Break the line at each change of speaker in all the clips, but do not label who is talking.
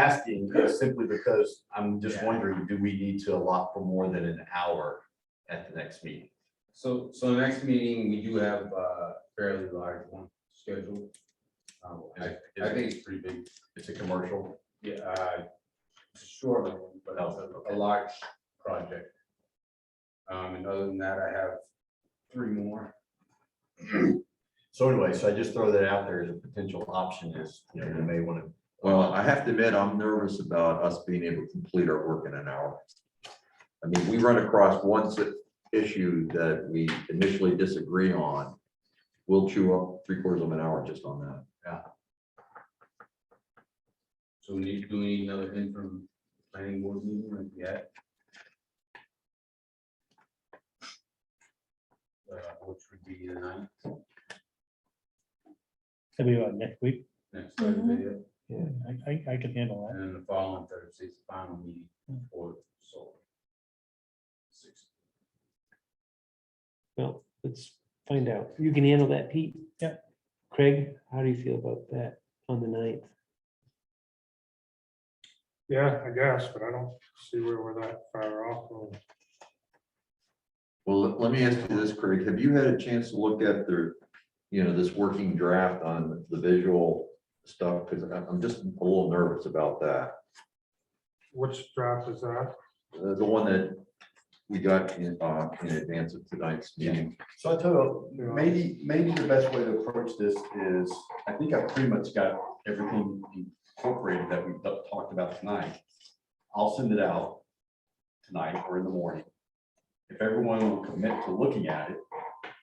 asking is simply because I'm just
Yeah.
wondering, do we need to allot for more than an hour at the next meeting?
So, so the next meeting, we do have a fairly large one scheduled. Um,
Is
I,
it-
I
is it-
think it's pretty big,
It's a commercial.
yeah, uh, it's a short one, but
Oh,
it's a- a large project. Um, and other than that, I have three more.
So anyway, so I just throw that out there as a potential option is, you know, we may want to.
Well, I have to admit, I'm nervous about us being able to complete our work in an hour. I mean, we run across one si- issue that we initially disagree on. We'll chew up three quarters of an hour just on that.
So we need, do we need another interim planning board meeting like yet? Uh, which would be the ninth,
Could be about next week.
next Thursday, yeah.
Yeah. I, I, I can handle that.
And then the following Thursday's the final meeting for solar. Six.
Well, let's find out. You can handle that, Pete?
Yeah.
Craig, how do you feel about that on the ninth?
Yeah, I guess, but I don't see where we're that far off. of-
Well, let- let me ask you this, Craig, have you had a chance to look at the, you know, this working draft on the visual stuff? Because I'm just a little nervous about that.
Which draft is that?
Uh, The one that we got in, uh, in advance of tonight's meeting.
So I tell you, maybe, maybe the best way to approach this is, I think I've pretty much got everything incorporated that we've talked about tonight. I'll send it out tonight or in the morning. If everyone will commit to looking at it,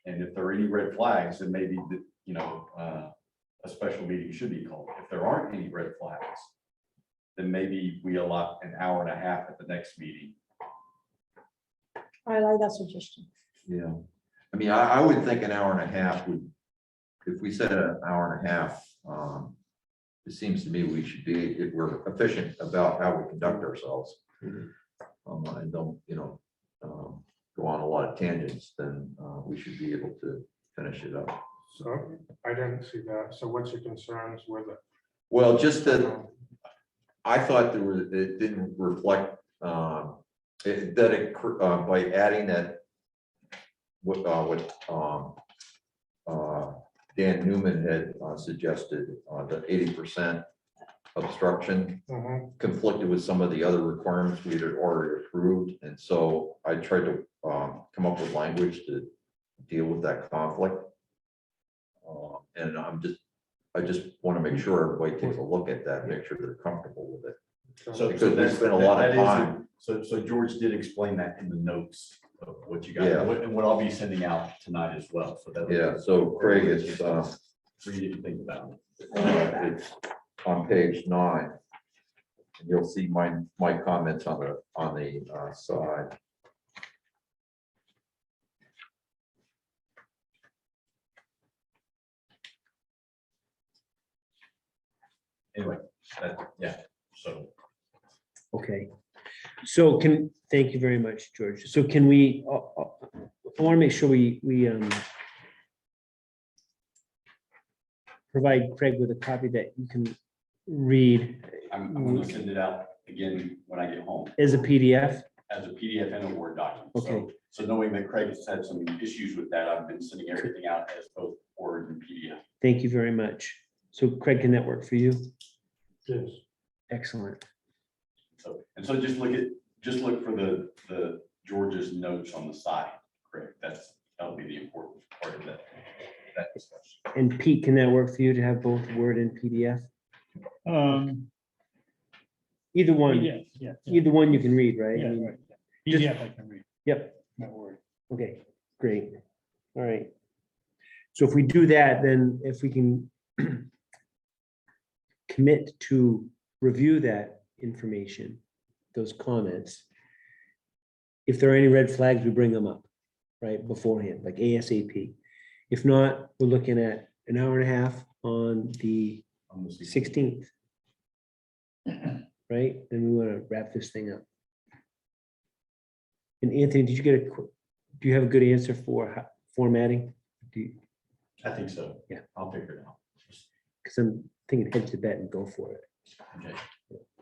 and if there are any red flags, then maybe, the- you know, uh, a special meeting should be called. If there aren't any red flags, then maybe we allot an hour and a half at the next meeting.
I like that suggestion.
Yeah, I mean, I, I would think an hour and a half would, if we said an hour and a half, um, it seems to me we should be, if we're efficient about how we conduct ourselves.
Mhm.
Um, and don't, you know, um, go on a lot of tangents, then, uh, we should be able to finish it up.
So I didn't see that. So what's your concerns with it?
Well, just that, I thought there was, it didn't reflect, um, it- that it, cr- uh, by adding that. What, uh, what, um, uh, Dan Newman had uh, suggested, uh, the eighty percent obstruction
Mhm.
conflicted with some of the other requirements we had already approved, and so I tried to, um, come up with language to deal with that conflict. Uh, and I'm just, I just want to make sure everybody takes a look at that, make sure they're comfortable with it.
So,
Because
so
we
that's-
spent a lot of
that is-
time.
So, so George did explain that in the notes of what you got,
Yeah.
and what- and what I'll be sending out tonight as well, so that.
Yeah, so Craig, it's, uh,
Read it and think about it.
uh, it's on page nine. And You'll see my, my comments on the, on the uh, side.
Anyway, that, yeah, so.
Okay, so can, thank you very much, George. So can we, uh, uh, I want to make sure we, we um provide Craig with a copy that you can read
I'm, I'm gonna send it out again when I get home
as a PDF.
as a PDF and a Word document. So,
Okay.
so knowing that Craig has had some issues with that, I've been sending everything out as both Word and PDF.
Thank you very much. So Craig, can that work for you?
Yes.
Excellent.
So, and so just look at, just look for the, the George's notes on the side, Craig. That's, that'll be the important part of that, that discussion.
And Pete, can that work for you to have both Word and PDF?
Um,
Either one,
yeah, yeah. yeah,
either one you can read, right? I
yeah,
mean,
right, yeah. PDF I can read.
Yep.
Not worried.
Okay, great. All right. So if we do that, then if we can commit to review that information, those comments. If there are any red flags, we bring them up, right, beforehand, like ASAP. If not, we're looking at an hour and a half on the
on the 16th.
sixteenth. Right, then we want to wrap this thing up. And Anthony, did you get a, qu- do you have a good answer for ho- formatting? Do you,
I think so.
Yeah.
I'll figure it out.
because I'm thinking head to bed and go for it.
Okay.